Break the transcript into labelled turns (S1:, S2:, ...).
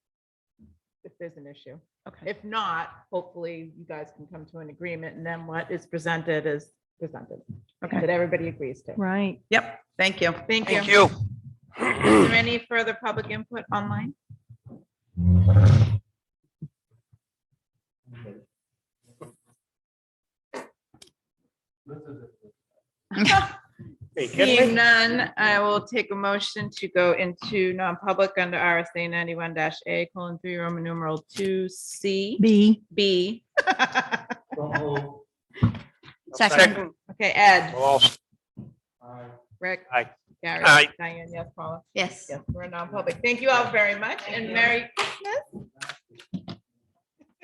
S1: there's an issue.
S2: Okay,
S1: If not, hopefully you guys can come to an agreement and then what is presented is presented.
S2: Okay.
S1: That everybody agrees to.
S2: right.
S1: Yep, thank you. Thank you.
S3: Thank you.
S1: Is there any further public input online?
S3: Hey, can I-
S1: Seeing none, I will take a motion to go into non-public under RSA ninety-one dash A colon three Roman numeral two C
S2: B,
S1: B.
S2: second,
S1: Okay, Ed,
S3: Well,
S1: Rick.
S3: Aye.
S1: Gary.
S3: Aye.
S1: Diane, yes, Paula.
S2: yes.
S1: Yes, we're in non-public. Thank you all very much and Merry Christmas.